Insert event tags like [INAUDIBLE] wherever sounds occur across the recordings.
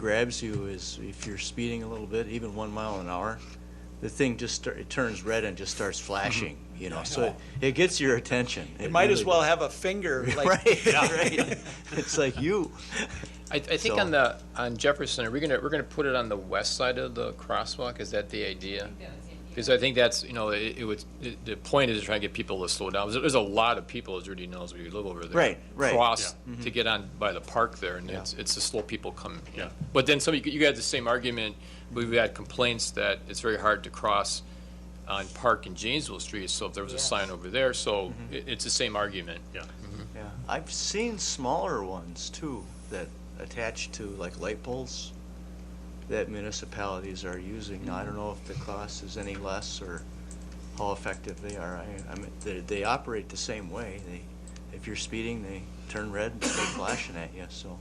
grabs you is if you're speeding a little bit, even one mile an hour, the thing just, start- it turns red and just starts flashing, you know, so it- it gets your attention. Mm-hmm. It might as really well have [LAUGHS] a finger, does. like, [LAUGHS] Right, right. [LAUGHS] It's like you. I, I think So- on the, on Jefferson, are we gonna, we're gonna put it on the west side of the crosswalk? Is that the idea? Because I think that's, you know, it, it would, the- the point is to try and get people to slow down. There's, there's a lot of people, as Rudy knows, we live over there. Right, right. Mm-hmm. Cross to get on by the park there, and it's, it's the slow people coming. Yeah. But then some, you you got the same argument, we've had complaints that it's very hard to cross on Park and Janesville Street, so if there was a sign over there, so it, it's the same argument. Mm-hmm. Yeah. Yeah, I've seen smaller ones too, that attach to like light poles that municipalities are using. Now, I don't know if the cost is any less or how effective they are. I, I mean, they, they operate the same way. They, if you're speeding, they turn red and start flashing at you, so,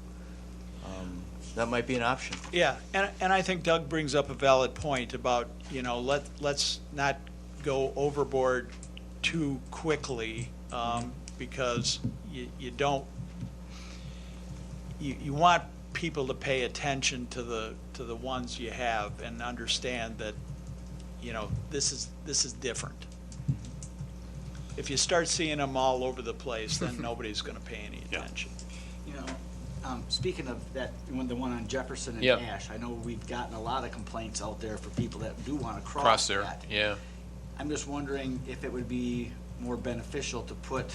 um, that might be an option. yeah. And, and I think Doug brings up a valid point about, you know, let, let's not go overboard too quickly, um, because you, you don't, you, you want people to pay attention to the, to the ones you have and understand that, you know, this is, this is different. If you start seeing them all over the [LAUGHS] place, then nobody's gonna pay any attention. You know, um, speaking of that, one- the one on Jefferson and Yep. Ash, I know we've gotten a lot of complaints out there for people that do want to Cross cross there, that. yeah. I'm just wondering if it would be more beneficial to put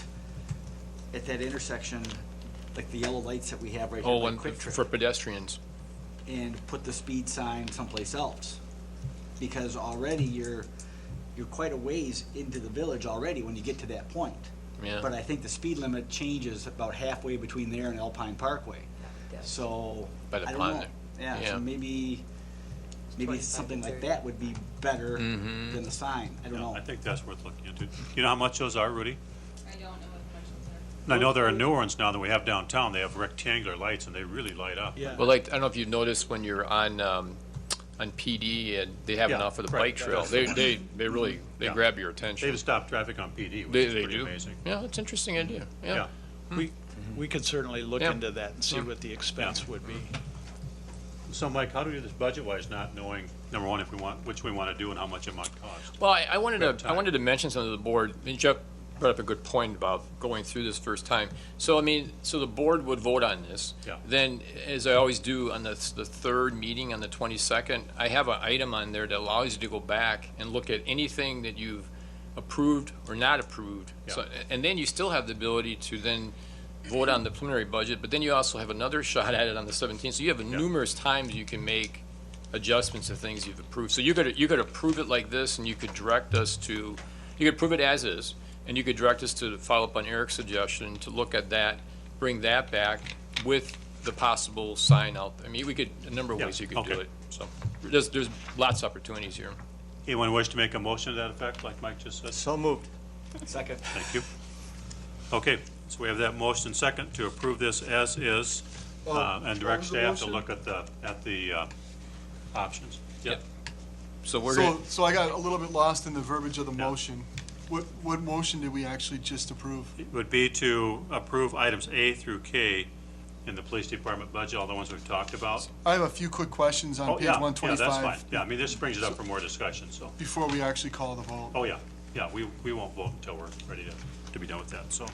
at that intersection, like the yellow lights that we have right here, Oh, like and Quick Trip for pedestrians. and put the speed sign someplace else. Because already you're, you're quite a ways into the village already when you get to that point. Yeah. But I think the speed limit changes about halfway between there and Alpine Parkway. So, By I the don't pond know. there. Yeah, Yeah. so maybe, maybe 25 to something like 30. that would be better Mm-hmm. than the sign, I don't Yeah, know. I think that's worth looking into. You know how much those are, Rudy? I don't know what questions are. And I know there are newer ones now than we have downtown. They have rectangular lights and they really light up. Yeah. Well, like, I don't know if you've noticed when you're on, um, on PD and they have Yeah, enough for the right, bike trail, that's they, they, they really, they Yeah. grab your They've attention. stopped traffic on PD, which They, is they pretty do. amazing. Yeah, it's an interesting idea, yeah. We, we could certainly look Yeah. into that and see Yeah. what the expense would be. So Mike, how do we do this budget-wise, not knowing, number one, if we want, which we want to do and how much it might cost? Well, I, I wanted Good to, I time. wanted to mention something to the board, and Jeff brought up a good point about going through this first time. So, I mean, so the board would vote on this. Yeah. Then, as I always do on the, the third meeting on the twenty-second, I have an item on there that allows you to go back and look at anything that you've approved or not approved. So, and then you still have the ability to then vote on the preliminary budget, but then you also have another [LAUGHS] shot at it on the seventeenth. So you have numerous times you can make adjustments to things you've approved. So you could, you could approve it like this, and you could direct us to, you could approve it as is, and you could direct us to follow up on Eric's suggestion, to look at that, bring that back with the possible sign out. I mean, we could, a number of Yeah, ways you could do okay. it, so. There's, there's lots of opportunities here. Anyone wish to make a motion to that effect, like Mike just said? So moved. Second. Thank you. Okay, so we have that motion second to approve this as is uh, and direct staff to look at the, at the uh, options. Yep. So we're, So, gonna- so I got a little bit lost in the verbiage of the motion. What, what motion did we actually just approve? It would be to approve items A through K in the police department budget, all the ones we've talked about. I have a few quick questions on Oh, page yeah, yeah, that's fine. 125 Yeah, I mean, this brings it up for more discussion, so, before we actually call the vote. oh, yeah, yeah, we, we won't vote until we're ready to, to be done with that, so.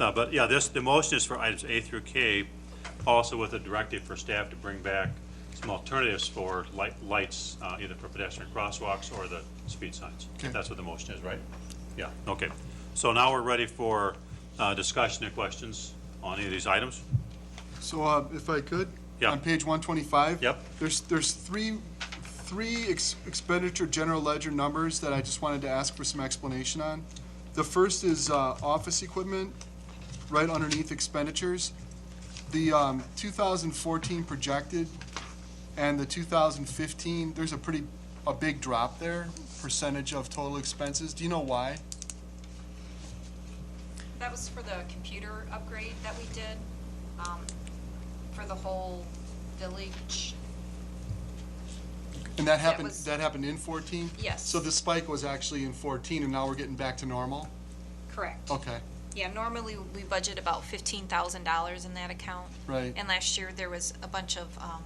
No, but, yeah, this, the motion is for items A through K, also with a directive for staff to bring back some alternatives for light, lights, uh, either for pedestrian crosswalks or the speed signs. Okay. That's what the motion is, right? Yeah, okay. So now we're ready for, uh, discussion and questions on any of these items? So uh, if I could? Yeah. On page 125? Yep. There's, there's three, three ex- expenditure general ledger numbers that I just wanted to ask for some explanation on. The first is uh, office equipment, right underneath expenditures. The um, 2014 projected and the 2015, there's a pretty, a big drop there, percentage of total expenses. Do you know why? That was for the computer upgrade that we did, um, for the whole village. And that happened, was- that happened in 14? Yes. So the spike was actually in 14, and now we're getting back to normal? Correct. Okay, Yeah, normally we budget about fifteen thousand dollars in that account. Right. And last year there was a bunch of, um,